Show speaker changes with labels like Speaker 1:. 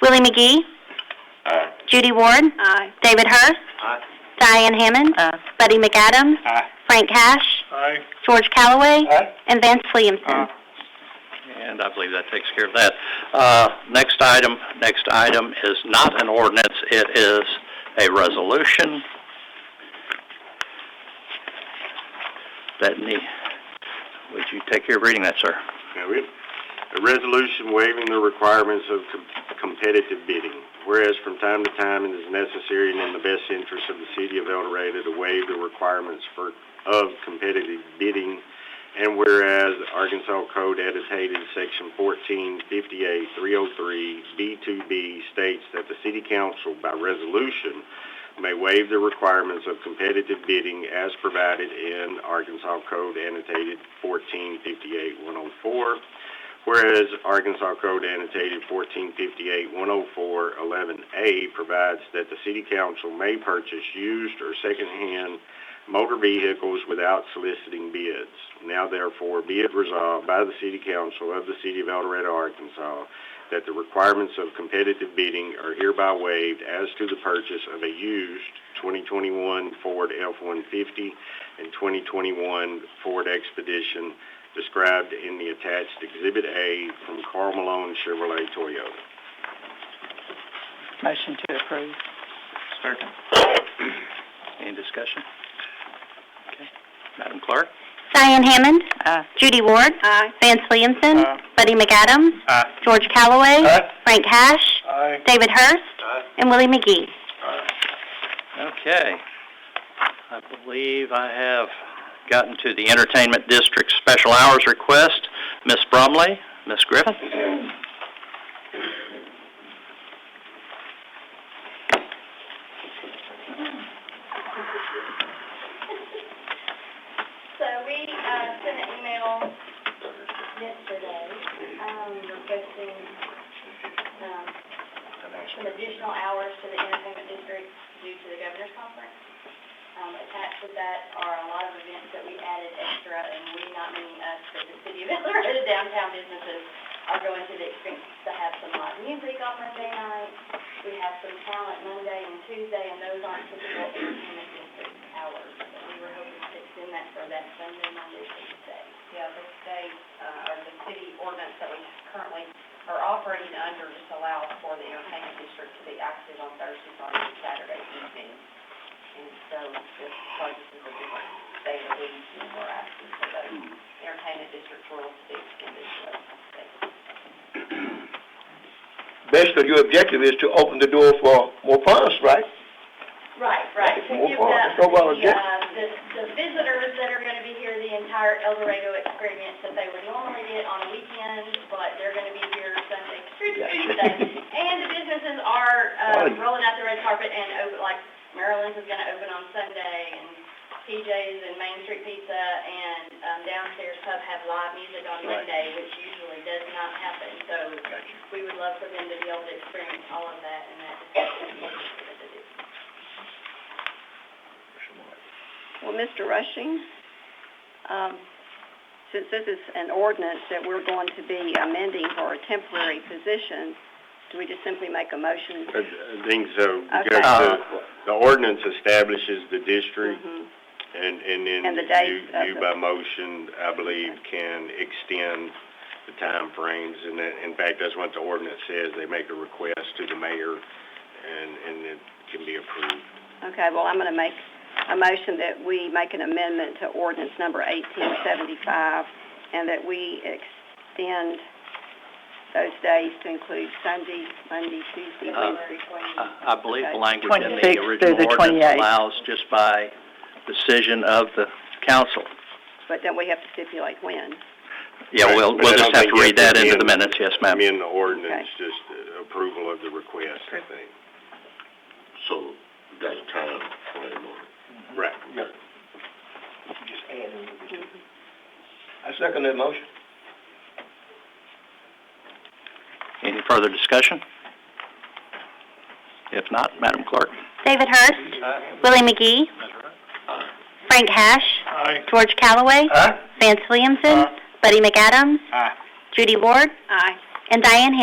Speaker 1: Willie McGee.
Speaker 2: Aye.
Speaker 1: Judy Ward.
Speaker 3: Aye.
Speaker 1: David Hurst.
Speaker 2: Aye.
Speaker 1: Diane Hammond. Buddy McAdams.
Speaker 2: Aye.
Speaker 1: Frank Cash.
Speaker 2: Aye.
Speaker 1: George Calloway.
Speaker 2: Aye.
Speaker 1: And Vance Williamson.
Speaker 4: And I believe that takes care of that. Uh, Next item, next item is not an ordinance, it is a resolution that need, would you take care of reading that, sir?
Speaker 2: Okay, we, a resolution waiving the requirements of com- competitive bidding. Whereas from time to time it is necessary and in the best interest of the city of El Dorado to waive the requirements for, of competitive bidding. And whereas Arkansas Code annotated section fourteen fifty-eight three oh three B two B states that the city council by resolution may waive the requirements of competitive bidding as provided in Arkansas Code annotated fourteen fifty-eight one oh four, whereas Arkansas Code annotated fourteen fifty-eight one oh four eleven A provides that the city council may purchase used or secondhand motor vehicles without soliciting bids. Now therefore be it resolved by the city council of the city of El Dorado, Arkansas, that the requirements of competitive bidding are hereby waived as to the purchase of a used 2021 Ford F-150 and 2021 Ford Expedition described in the attached Exhibit A from Carl Malone Chevrolet Toyota.
Speaker 3: Motion to approve.
Speaker 4: Second. Any discussion? Okay. Madam Clerk?
Speaker 1: Diane Hammond.
Speaker 3: Aye.
Speaker 1: Judy Ward.
Speaker 3: Aye.
Speaker 1: Vance Williamson.
Speaker 2: Aye.
Speaker 1: Buddy McAdams.
Speaker 2: Aye.
Speaker 1: George Calloway.
Speaker 2: Aye.
Speaker 1: Frank Cash.
Speaker 2: Aye.
Speaker 1: David Hurst.
Speaker 2: Aye.
Speaker 1: And Willie McGee.
Speaker 4: Okay. I believe I have gotten to the Entertainment District Special Hours Request. Ms. Brumley, Ms. Griffith?
Speaker 5: So we, uh, sent an email yesterday, um, requesting, um, some additional hours to the entertainment district due to the governor's conference. Um, attached with that are a lot of events that we added extra, and we, not meaning us, but the city of El Dorado downtown businesses are going to the expense to have some live music on Monday night. We have some talent Monday and Tuesday, and those aren't typical entertainment district hours. So we were hoping to extend that for that Sunday, Monday, Tuesday. Yeah, the state, uh, or the city ordinance that we currently are operating under just allows for the entertainment district to be active on Thursday, Friday, and Saturday evening. And so this project is a different day that we were asking for those entertainment district rules to be extended to those states.
Speaker 6: basically your objective is to open the door for more funds, right?
Speaker 5: Right, right, to
Speaker 6: Well,
Speaker 5: give
Speaker 6: well,
Speaker 5: them
Speaker 6: it's
Speaker 5: the,
Speaker 6: no well object-
Speaker 5: um, the, the visitors that are gonna be here, the entire El Dorado experience that they would normally get on a weekend, but they're gonna be here Sunday through
Speaker 6: Yeah.
Speaker 5: Tuesday. And the businesses are, uh,
Speaker 6: Right.
Speaker 5: rolling out the red carpet and open, like Maryland's is gonna open on Sunday, and PJ's and Main Street Pizza and, um, downstairs pub have live music on
Speaker 6: Right.
Speaker 5: Monday, which usually does not happen, so we would love for them to be able to experience all of that, and that is what it is.
Speaker 3: Well, Mr. Rushing, um, since this is an ordinance that we're going to be amending for a temporary position, do we just simply make a motion?
Speaker 2: I I think so, because
Speaker 3: Okay.
Speaker 2: the, the ordinance establishes the district
Speaker 3: Mhm.
Speaker 2: And, and
Speaker 3: And the
Speaker 2: then
Speaker 3: dates of
Speaker 2: you, you
Speaker 3: the-
Speaker 2: by motion, I believe, can extend the timeframes, and that, in fact, that's what the ordinance says, they make a request to the mayor, and, and it can be approved.
Speaker 3: Okay, well, I'm going to make a motion that we make an amendment to ordinance number 1875, and that we extend those days to include Sunday, Monday, Tuesday,
Speaker 4: Uh,
Speaker 3: Wednesday,
Speaker 4: I I believe the
Speaker 3: Okay.
Speaker 4: language in the
Speaker 7: 26 through the
Speaker 4: original ordinance
Speaker 7: 28.
Speaker 4: allows just by decision of the council.
Speaker 3: but then we have to stipulate when.
Speaker 4: Yeah, we'll,
Speaker 2: But I
Speaker 4: we'll
Speaker 2: don't
Speaker 4: just have
Speaker 2: think
Speaker 4: to
Speaker 2: you
Speaker 4: read that into the
Speaker 2: amend-
Speaker 4: minutes, yes, ma'am.
Speaker 2: Amend the ordinance, just uh, approval of the request, I think.
Speaker 6: So that's time frame on
Speaker 2: Right.
Speaker 6: Just add a little bit. I second that motion.
Speaker 4: Any further discussion? If not, Madam Clerk?
Speaker 1: David Hurst. Willie McGee. Frank Cash.
Speaker 2: Aye.
Speaker 1: George Calloway.
Speaker 2: Aye.
Speaker 1: Vance Williamson. Buddy McAdams.
Speaker 2: Aye.
Speaker 1: Judy Ward.
Speaker 3: Aye.
Speaker 1: And Diane Hammond.